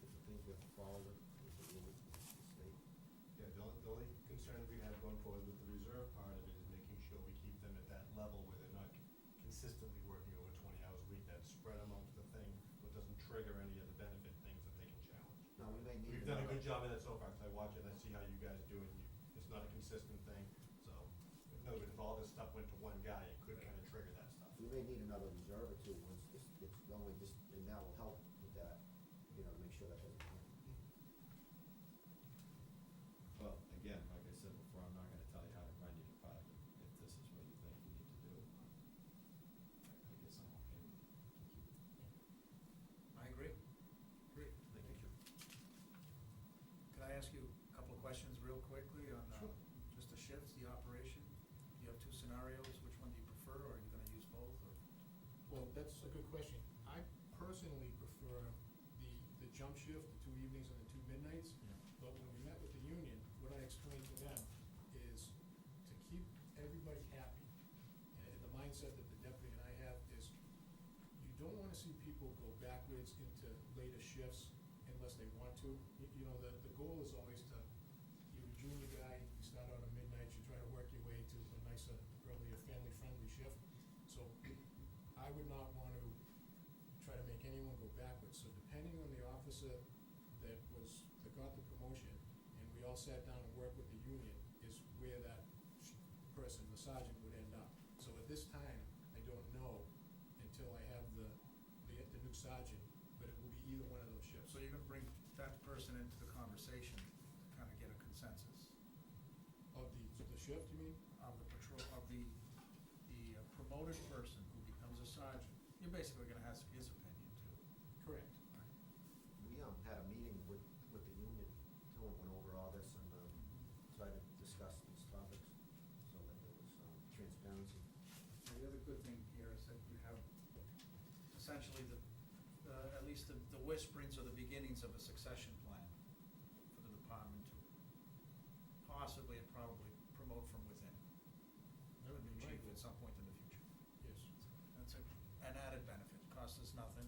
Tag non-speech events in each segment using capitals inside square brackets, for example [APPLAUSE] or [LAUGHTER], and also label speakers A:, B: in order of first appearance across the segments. A: doesn't fall with with the rule of the state.
B: Yeah, the only, the only concern we have going forward with the reserve part of it is making sure we keep them at that level where they're not consistently working over twenty hours a week, that's spread amongst the thing, but doesn't trigger any of the benefit things that they can challenge.
A: Now, we may need.
B: We've done a
A: another-
B: good job of that so far, 'cause I watch it, I see how you guys do it, and you, it's not a consistent thing, so, in other words, if all this stuff went to one guy, it could kinda trigger that stuff.
A: We may need another reserve or two once this gets going, just, and that will help with that, you know, to make sure that doesn't happen.
C: Well, again, like I said before, I'm not gonna tell you how to run your department if this is what you think you need to do. I I guess I'm okay with it.
D: I agree. Great.
C: Thank you.
D: Could I ask you a couple of questions real quickly on, uh, just the shifts, the operation? You have two scenarios, which one do you prefer, or are you gonna use both, or?
E: Well, that's a good question. I personally prefer the, the jump shift, the two evenings and the two midnights. But when we met with the union, what I explained to them is to keep everybody happy. And and the mindset that the deputy and I have is you don't wanna see people go backwards into later shifts unless they want to. You, you know, the, the goal is always to, you're a junior guy, you start out at midnight, you try to work your way to a nicer, earlier, family-friendly shift. So I would not want to try to make anyone go backwards. So depending on the officer that was, that got the promotion, and we all sat down and worked with the union, is where that sh- person, the sergeant, would end up. So at this time, I don't know until I have the, the, the new sergeant, but it will be either one of those shifts.
D: So you're gonna bring that person into the conversation to kinda get a consensus
E: Of the, the shift, you mean?
D: of the patrol, of the, the uh, promoted person who becomes a sergeant. You're basically gonna ask his opinion too.
E: Correct.
A: We, um, had a meeting with, with the union, too, and went over all this and, um, tried to discuss these topics, so that there was, um, transparency.
D: Now, the other good thing here is that you have essentially the, uh, at least the the whisperings or the beginnings of a succession plan for the department to possibly and probably promote from within.
E: That would
D: a new
E: be my
D: chief
E: goal.
D: At some point in the future.
E: Yes.
D: That's a, an added benefit, costs us nothing,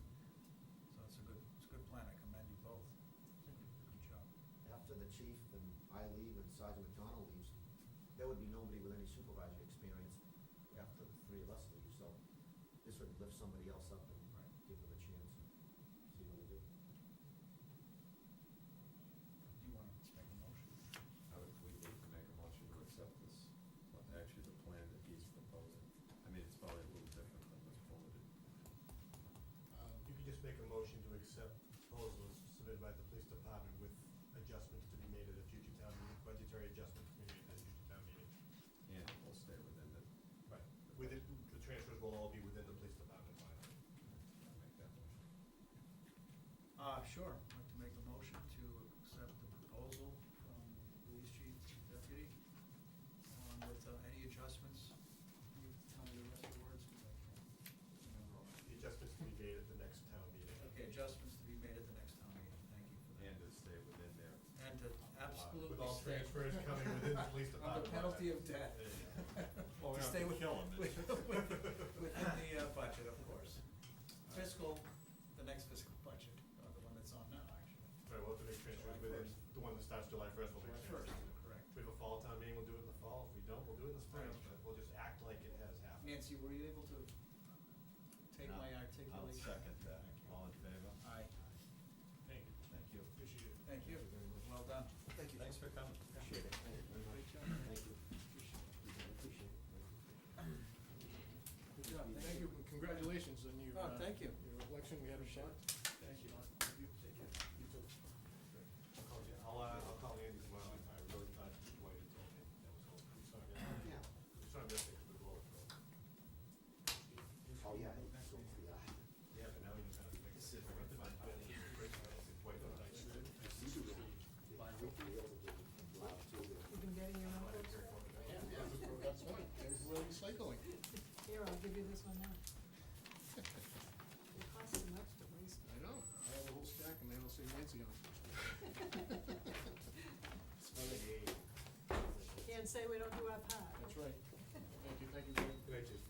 D: so it's a good, it's a good plan, I commend you both. Good job.
A: After the chief and I leave and Sergeant McDonald leaves, there would be nobody with any supervisory experience after the three of us leave, so this would lift somebody else up and
D: Right.
A: give them a chance, and see what they do.
D: Do you wanna make a motion?
C: I would, we need to make a motion to accept this, well, actually the plan that he's proposing. I mean, it's probably a little different than what's forwarded.
E: Um,
B: You could just make a motion to accept proposals submitted by the police department with adjustments to be made at a future town meeting, budgetary adjustments to be made at a future town meeting.
C: And we'll stay within the,
B: Right. Within, the transfers will all be within the police department line.
C: I'll make that motion.
D: Uh, sure, I'd like to make a motion to accept the proposal from the police chief deputy, um, with uh, any adjustments. Can you tell me the rest of the words? 'Cause I can't remember all.
B: The adjustments to be made at the next town meeting.
D: Okay, adjustments to be made at the next town meeting, thank you for
C: And
D: that.
C: to stay within there.
D: And to absolutely
B: With all
D: stay-
B: transfers coming within the police
D: [LAUGHS] On
B: department.
D: the penalty of death.
B: Well, we
D: [LAUGHS]
B: don't
D: To stay
B: have to
D: with- [LAUGHS]
B: kill 'em, it's
D: with-
B: just-
D: with- Within the uh, budget, of
B: [LAUGHS]
D: course. Fiscal, the next fiscal budget, or the one that's on now, actually.
B: Sorry, we'll have to make transfers
D: July
B: within,
D: first.
B: the one that starts July first, we'll make
D: July
B: transfers.
D: first, correct.
B: If we have a fall town meeting, we'll do it in the fall, if we don't, we'll do it in the spring,
D: Right.
B: but we'll just act like it has happened.
D: Nancy, were you able to take my
C: I'll-
D: articulation?
C: I'll second that. All in favor?
D: Aye.
E: Thank you.
C: Thank you.
E: Appreciate it.
D: Thank you,
A: Thank you very much.
D: well done.
A: Thank you.
C: Thanks for coming.
A: Appreciate it. Thank you very much.
D: Great job.
A: Thank you. Appreciate it.
D: Good job,
E: Thank you, and congratulations on your.
D: Oh,
E: uh,
D: thank you.
E: Your election, we had a shot.
D: Thank you.
B: I'll call you- I'll, uh, I'll call Andy tomorrow, I I really thought you waited until then, that was all, I'm sorry.
A: Yeah.
B: I'm sorry, I missed it, 'cause we rolled it.
A: Oh, yeah. it's so- yeah.
B: Yeah, but now we just gotta fix it. Wait, don't I shoot it?
F: You've been getting your numbers?
E: That's right, there's where [LAUGHS] recycling.
F: Here, I'll give you this one now. It costs too much to waste. [LAUGHS]
E: I know, I have a whole stack and they don't say Nancy on it. [LAUGHS]
F: Can't say we don't do our part.
E: That's right. Thank you, thank you very much.
B: Could I just